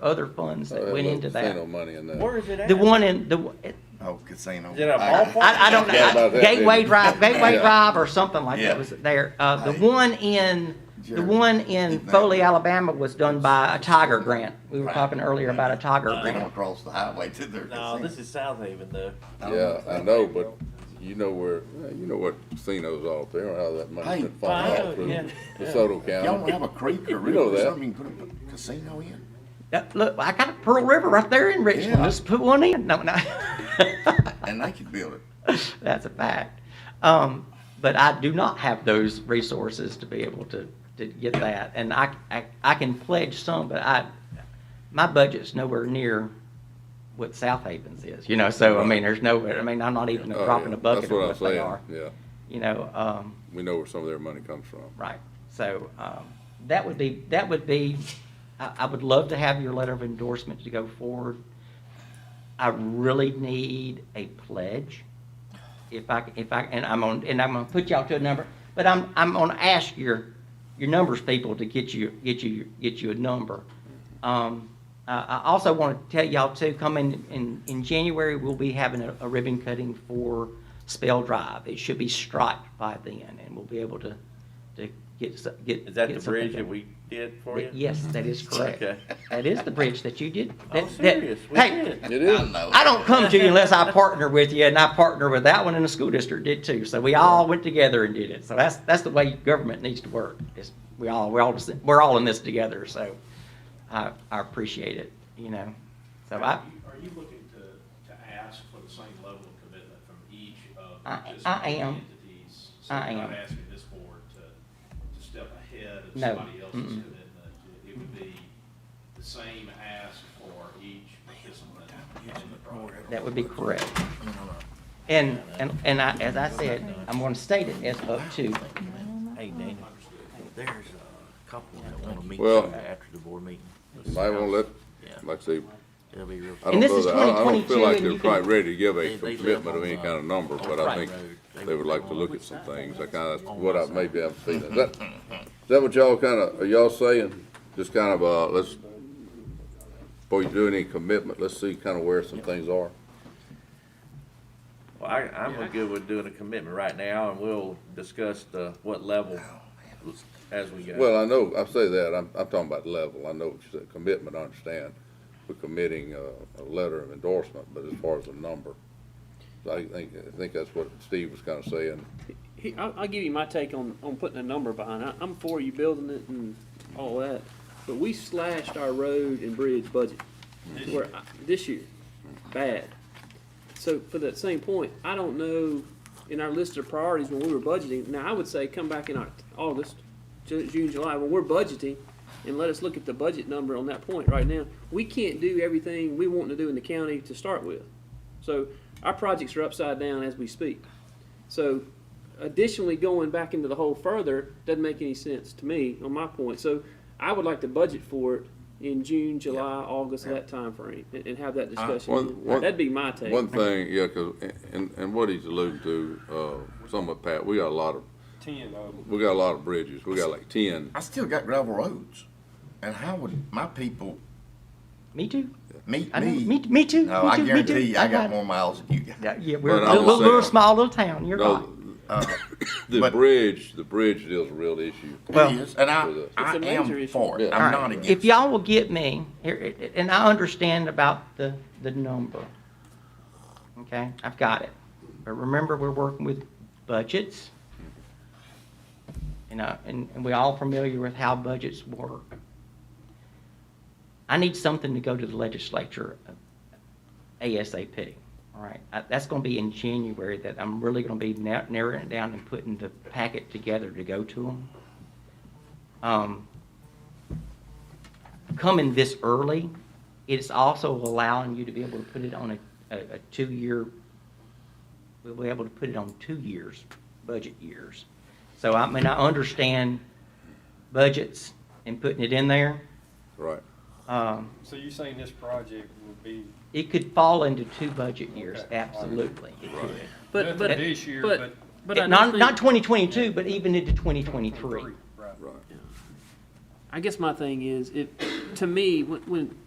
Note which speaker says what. Speaker 1: other funds
Speaker 2: Oh,
Speaker 1: that went into
Speaker 2: Casino
Speaker 1: that.
Speaker 2: money in there.
Speaker 3: Where is it at?
Speaker 1: The one in, the, one-
Speaker 4: Oh, casino.
Speaker 3: Is it a ballpark?
Speaker 1: I, I don't
Speaker 2: Yeah, about
Speaker 1: know,
Speaker 2: that,
Speaker 1: Gateway
Speaker 2: yeah.
Speaker 1: Drive, Gateway
Speaker 2: Yeah.
Speaker 1: Drive or something like
Speaker 4: Yeah.
Speaker 1: that was there. Uh, the
Speaker 4: Hey.
Speaker 1: one in, the
Speaker 4: Jerry,
Speaker 1: one in
Speaker 4: keep that.
Speaker 1: Foley, Alabama was done by a Tiger grant. We were
Speaker 3: Right.
Speaker 1: talking earlier about a Tiger
Speaker 4: They don't
Speaker 1: grant.
Speaker 4: cross the highway to their
Speaker 3: No,
Speaker 4: casino.
Speaker 3: this is South Haven though.
Speaker 2: Yeah, I know, but you know where, you know what casinos out there, and how that money's
Speaker 4: Hey,
Speaker 2: been funneled
Speaker 3: Fine,
Speaker 2: out through
Speaker 3: yeah.
Speaker 2: DeSoto
Speaker 4: Y'all don't
Speaker 2: County.
Speaker 4: have a creek or
Speaker 2: You know
Speaker 4: river or
Speaker 2: that.
Speaker 4: something you can put a casino in?
Speaker 1: That- Look, I got a Pearl River right there in Richmond.
Speaker 4: Yeah.
Speaker 1: Let's put one in. No, no.
Speaker 4: And they could build it.
Speaker 1: That's a fact. Um, but I do not have those resources to be able to, to get that. And I, I, I can pledge some, but I, my budget's nowhere near what South Haven's is, you know, so, I mean, there's no, I mean, I'm not even a
Speaker 2: Oh,
Speaker 1: drop
Speaker 2: yeah,
Speaker 1: in a bucket
Speaker 2: that's
Speaker 1: of
Speaker 2: what I'm
Speaker 1: what they
Speaker 2: saying,
Speaker 1: are,
Speaker 2: Yeah,
Speaker 1: you know, um,
Speaker 2: we know where some of their money comes from.
Speaker 1: right. So, um, that would be, that would be, I, I would love to have your letter of endorsement to go forward. I really need a pledge. If I, if I, and I'm on, and I'm gonna put y'all to a number, but I'm, I'm gonna ask your, your numbers people to get you, get you, get you a number. Um, I, I also wanna tell y'all too, come in, in, in January, we'll be having a, a ribbon cutting for Spell Drive. It should be striped by then, and we'll be able to, to get, so- get.
Speaker 3: Is that
Speaker 1: get
Speaker 3: the
Speaker 1: something
Speaker 3: bridge
Speaker 1: done.
Speaker 3: that we did for you?
Speaker 1: Yes, that is correct.
Speaker 3: Okay.
Speaker 1: That is the bridge that you did.
Speaker 3: I'm
Speaker 1: that- that-
Speaker 3: serious, we
Speaker 1: hey,
Speaker 3: did.
Speaker 2: It
Speaker 4: I
Speaker 2: is,
Speaker 4: know.
Speaker 1: I don't come to you unless I partner with you, and I partner with that one, and the school district did too. So we all went together and did it. So that's, that's the way government needs to work. It's, we all, we're all, just- we're all in this together, so I, I appreciate it, you know? So I,
Speaker 5: Are you- Are you looking to, to ask for the same level of commitment from each of the
Speaker 1: I- I
Speaker 5: participating
Speaker 1: am.
Speaker 5: entities? So
Speaker 1: I
Speaker 5: you're not
Speaker 1: am.
Speaker 5: asking this board to, to step ahead of
Speaker 1: No.
Speaker 5: somebody else's
Speaker 1: Mm-mm.
Speaker 5: commitment? It- It would be the same ask for each participant in the program?
Speaker 1: that would be correct. And, and, and I, as I said, I'm gonna state it as up to,
Speaker 3: Hey, Dana, there's a couple that wanna meet
Speaker 2: Well-
Speaker 3: you after the board meeting.
Speaker 2: I won't let,
Speaker 3: Yeah,
Speaker 2: like I say,
Speaker 3: it'll be real.
Speaker 2: I
Speaker 1: And
Speaker 2: don't
Speaker 1: this
Speaker 2: know,
Speaker 1: is
Speaker 2: that- I don't- I don't feel
Speaker 1: 2022,
Speaker 2: like
Speaker 1: and
Speaker 2: they're
Speaker 1: you can-
Speaker 2: quite ready to give
Speaker 3: They-
Speaker 2: a
Speaker 3: they live
Speaker 2: commitment of
Speaker 3: on,
Speaker 2: any
Speaker 3: uh,
Speaker 2: kind of number,
Speaker 3: on
Speaker 2: but I
Speaker 3: Bright
Speaker 2: think
Speaker 3: Road. They-
Speaker 2: they would
Speaker 3: they
Speaker 2: like to
Speaker 3: want-
Speaker 2: look at some things, I kinda, that's what I, maybe I'm feeling, is that, is that what y'all kinda, are y'all saying? Just kind of, uh, let's, before you do any commitment, let's see kinda where some things are?
Speaker 3: Well, I, I'm good with doing a commitment right now and we'll discuss the, what level as we go.
Speaker 2: Well, I know, I say that, I'm, I'm talking about level, I know what you said, commitment, I understand, we're committing uh, a, a letter of endorsement, but as far as a number, I think, I think that's what Steve was kinda saying,
Speaker 6: He, I'll, I'll give you my take on, on putting a number behind it. I'm for you building it and all that, but we slashed our road and bridge budget where I, this year, bad. So for that same point, I don't know in our list of priorities when we were budgeting. Now I would say come back in Oct- August, Ju- June, July when we're budgeting, and let us look at the budget number on that point. Right now, we can't do everything we want to do in the county to start with. So our projects are upside down as we speak. So additionally, going back into the hole further doesn't make any sense to me on my point. So I would like to budget for it in June, July, August, that timeframe, and, and have that discussion.
Speaker 2: Uh, one- one-
Speaker 6: That'd be my take.
Speaker 2: One thing, yeah, 'cause, and, and what he's alluding to, uh, some of Pat, we got a lot of,
Speaker 7: ten of them.
Speaker 2: we got a lot of bridges, we got like ten.
Speaker 4: I still got gravel roads. And how would my people
Speaker 1: me too.
Speaker 4: meet
Speaker 1: I know,
Speaker 4: me?
Speaker 1: me, me too.
Speaker 4: No,
Speaker 1: me
Speaker 4: I
Speaker 1: too, me
Speaker 4: guarantee
Speaker 1: too.
Speaker 4: you, I got
Speaker 1: know.
Speaker 4: more miles than you got.
Speaker 1: Yeah, yeah, we're
Speaker 2: But
Speaker 1: a
Speaker 2: I
Speaker 1: little,
Speaker 2: will say-
Speaker 1: little small little town, you're right.
Speaker 2: No,
Speaker 4: Uh,
Speaker 2: The
Speaker 4: but-
Speaker 2: bridge, the bridge deal's a real issue.
Speaker 1: Well-
Speaker 4: It is, and I,
Speaker 2: It's
Speaker 4: I
Speaker 6: a major
Speaker 4: am
Speaker 6: issue.
Speaker 4: for it.
Speaker 2: Yeah.
Speaker 4: I'm
Speaker 1: All right.
Speaker 4: not against it.
Speaker 1: If y'all will get me, here, and I understand about the, the number. Okay, I've got it. But remember, we're working with budgets. You know, and, and we all familiar with how budgets work. I need something to go to the legislature ASAP, all right? I- That's gonna be in January that I'm really gonna be na- narrowing it down and putting the packet together to go to them. Um, coming this early, it's also allowing you to be able to put it on a, a, a two-year, we'll be able to put it on two years, budget years. So I mean, I understand budgets and putting it in there.
Speaker 2: Right.
Speaker 1: Um,
Speaker 7: So you're saying this project would be
Speaker 1: it could fall into two budget years,
Speaker 7: Okay.
Speaker 1: absolutely. It could.
Speaker 6: But, but,
Speaker 7: nothing this year,
Speaker 6: but,
Speaker 7: but
Speaker 6: but I do
Speaker 1: Not, not
Speaker 6: think,
Speaker 1: twenty twenty-two, but even into twenty twenty-three.
Speaker 7: three, right?
Speaker 2: Right.
Speaker 6: I guess my thing is, if, to me, when, when,